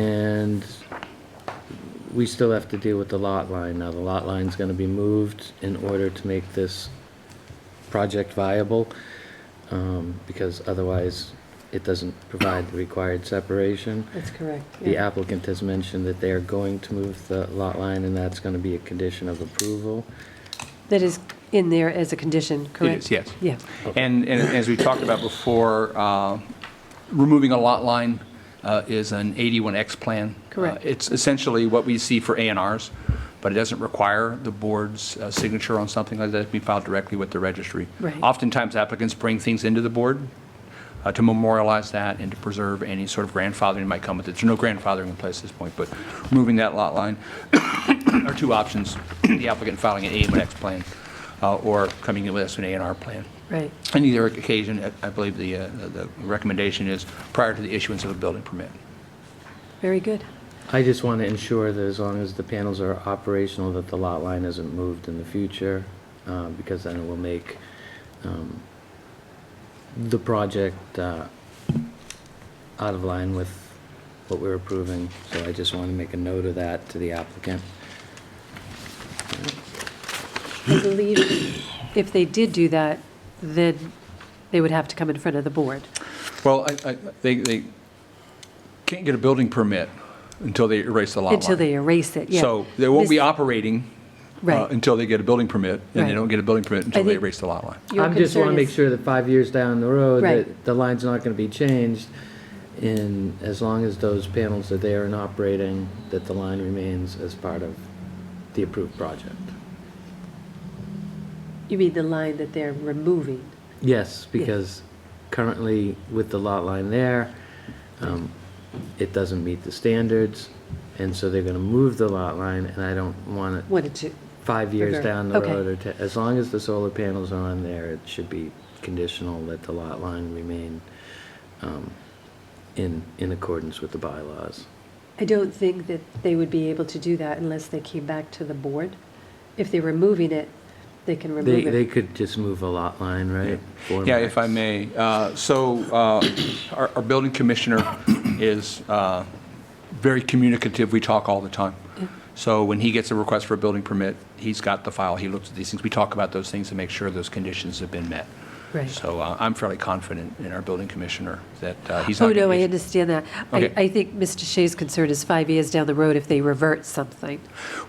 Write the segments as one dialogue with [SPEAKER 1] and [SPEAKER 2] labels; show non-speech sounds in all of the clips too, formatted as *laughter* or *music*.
[SPEAKER 1] And we still have to deal with the lot line. Now, the lot line's gonna be moved in order to make this project viable, um, because otherwise it doesn't provide the required separation.
[SPEAKER 2] That's correct.
[SPEAKER 1] The
[SPEAKER 2] yeah.
[SPEAKER 1] applicant has mentioned that they are going to move the lot line, and that's gonna be a condition of approval.
[SPEAKER 2] That is in there as a condition, correct?
[SPEAKER 3] is, yes.
[SPEAKER 2] Yeah,
[SPEAKER 3] And, and as we talked about before, uh, removing a lot line uh, is an 81X plan.
[SPEAKER 2] Correct.
[SPEAKER 3] Uh, It's essentially what we see for A and Rs, but it doesn't require the board's uh, signature on something like that. It can be filed directly with the registry.
[SPEAKER 2] Right.
[SPEAKER 3] Oftentimes applicants bring things into the board uh, to memorialize that and to preserve any sort of grandfathering that might come with it. There's no grandfathering in place at this point, but removing that lot line *coughs* are two options, the applicant filing an A1X plan uh, or coming in with us an A and R plan.
[SPEAKER 2] right.
[SPEAKER 3] On either occasion, I- I believe the, uh, the recommendation is prior to the issuance of a building permit.
[SPEAKER 2] Very good.
[SPEAKER 1] I just want to ensure that as long as the panels are operational, that the lot line isn't moved in the future, uh, because then it will make um, the project uh, out of line with what we're approving. So I just want to make a note of that to the applicant.
[SPEAKER 2] I believe if they did do that, then they would have to come in front of the board.
[SPEAKER 3] Well, I, I, they, they can't get a building permit until they erase the lot line.
[SPEAKER 2] Until they erase it, yeah.
[SPEAKER 3] So they won't be
[SPEAKER 2] This-
[SPEAKER 3] operating uh,
[SPEAKER 2] Right.
[SPEAKER 3] until they get a building permit, and
[SPEAKER 2] Right.
[SPEAKER 3] they don't get a building permit until they
[SPEAKER 2] think-
[SPEAKER 3] erase the lot line.
[SPEAKER 2] Your
[SPEAKER 1] I just want to
[SPEAKER 2] concern
[SPEAKER 1] make
[SPEAKER 2] is-
[SPEAKER 1] sure that five years down the road,
[SPEAKER 2] Right.
[SPEAKER 1] that the line's not going to be changed. And as long as those panels are there and operating, that the line remains as part of the approved project.
[SPEAKER 2] You mean the line that they're removing?
[SPEAKER 1] Yes, because currently with the lot line there, um, it doesn't meet the standards, and so they're gonna move the lot line, and I don't want it
[SPEAKER 2] Wanted to,
[SPEAKER 1] five years
[SPEAKER 2] Okay.
[SPEAKER 1] down the
[SPEAKER 2] Okay.
[SPEAKER 1] road, or te- as long as the solar panels are on there, it should be conditional that the lot line remain um, in, in accordance with the bylaws.
[SPEAKER 2] I don't think that they would be able to do that unless they came back to the board. If they're removing it, they can
[SPEAKER 1] They,
[SPEAKER 2] remove
[SPEAKER 1] they
[SPEAKER 2] it.
[SPEAKER 1] could just move a lot line, right? Four
[SPEAKER 3] Yeah, if I
[SPEAKER 1] max.
[SPEAKER 3] may. Uh, So uh, our our building commissioner is uh, very communicative. We talk all the time. So when he gets a request for a building permit, he's got the file. He looks at these things. We talk about those things to make sure those conditions have been met.
[SPEAKER 2] Right.
[SPEAKER 3] So uh, I'm fairly confident in our building commissioner that uh, he's not.
[SPEAKER 2] Oh,
[SPEAKER 3] gonna
[SPEAKER 2] no, I
[SPEAKER 3] issue-
[SPEAKER 2] understand that. I,
[SPEAKER 3] Okay.
[SPEAKER 2] I think Mr. Shea's concern is five years down the road if they revert something.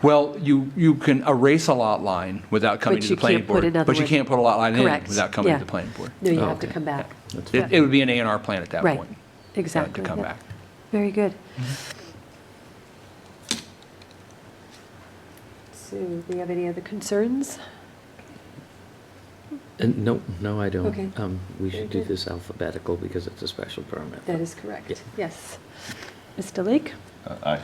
[SPEAKER 3] Well, you, you can erase a lot line without coming
[SPEAKER 2] But
[SPEAKER 3] to
[SPEAKER 2] you
[SPEAKER 3] the planning
[SPEAKER 2] can't put
[SPEAKER 3] board.
[SPEAKER 2] another
[SPEAKER 3] But you
[SPEAKER 2] one-
[SPEAKER 3] can't put a lot line in
[SPEAKER 2] Correct,
[SPEAKER 3] without coming
[SPEAKER 2] yeah.
[SPEAKER 3] to the planning board.
[SPEAKER 2] No, you
[SPEAKER 1] Oh,
[SPEAKER 2] have to
[SPEAKER 1] okay.
[SPEAKER 2] come back.
[SPEAKER 1] That's
[SPEAKER 3] It it would be an A and R plan at that
[SPEAKER 2] Right.
[SPEAKER 3] point. uh,
[SPEAKER 2] Exactly.
[SPEAKER 3] To come
[SPEAKER 2] yeah.
[SPEAKER 3] back.
[SPEAKER 2] Very good. So, do we have any other concerns?
[SPEAKER 1] Uh, No, no, I don't.
[SPEAKER 2] Okay.
[SPEAKER 1] Um, We
[SPEAKER 2] Very
[SPEAKER 1] should do
[SPEAKER 2] good.
[SPEAKER 1] this alphabetical because it's a special permit.
[SPEAKER 2] That is
[SPEAKER 1] Yeah.
[SPEAKER 2] correct, yes. Mr. Lake?
[SPEAKER 4] Aye.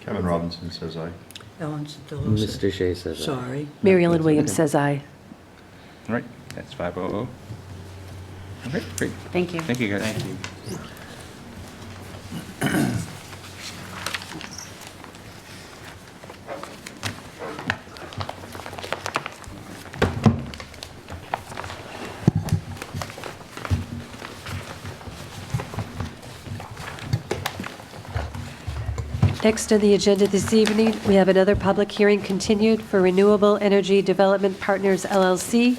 [SPEAKER 4] Kevin Robinson says aye.
[SPEAKER 5] Ellen Sedillo said,
[SPEAKER 1] Mr. Shea says aye.
[SPEAKER 5] sorry.
[SPEAKER 2] Mary Ellen Williams says aye.
[SPEAKER 3] All right, that's 500. Okay, great.
[SPEAKER 6] Thank you.
[SPEAKER 3] Thank you, guys. Thank you.
[SPEAKER 2] Next on the agenda this evening, we have another public hearing continued for Renewable Energy Development Partners LLC,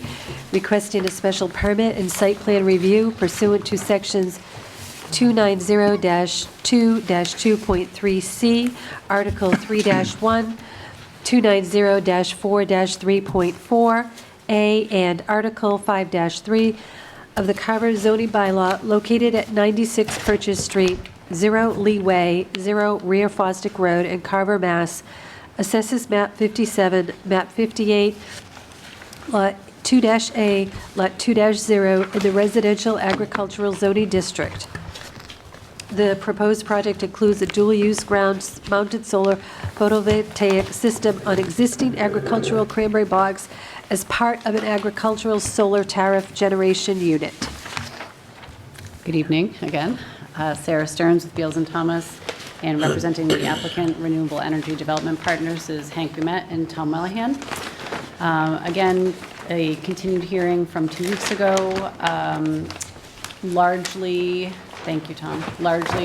[SPEAKER 2] requesting a special permit and site plan review pursuant to Sections 290-2-2.3C, Article 3-1, 290-4-3.4A, and Article 5-3 of the Carver zoning bylaw located at 96 Purchase Street, 0 Leeway, 0 Rear Fosdick Road in Carver, Mass. Assesses map 57, map 58, Lot 2-A, Lot 2-0, in the Residential Agricultural Zoning District. The proposed project includes a dual-use ground-mounted solar photovoltaic system on existing agricultural cranberry bogs as part of an agricultural solar tariff generation unit.
[SPEAKER 6] Good evening, again. Uh, Sarah Stearns with Beals and Thomas, and representing the applicant Renewable Energy Development Partners is Hank Bumet and Tom Monahan. Um, Again, a continued hearing from two weeks ago, um, largely, thank you, Tom, largely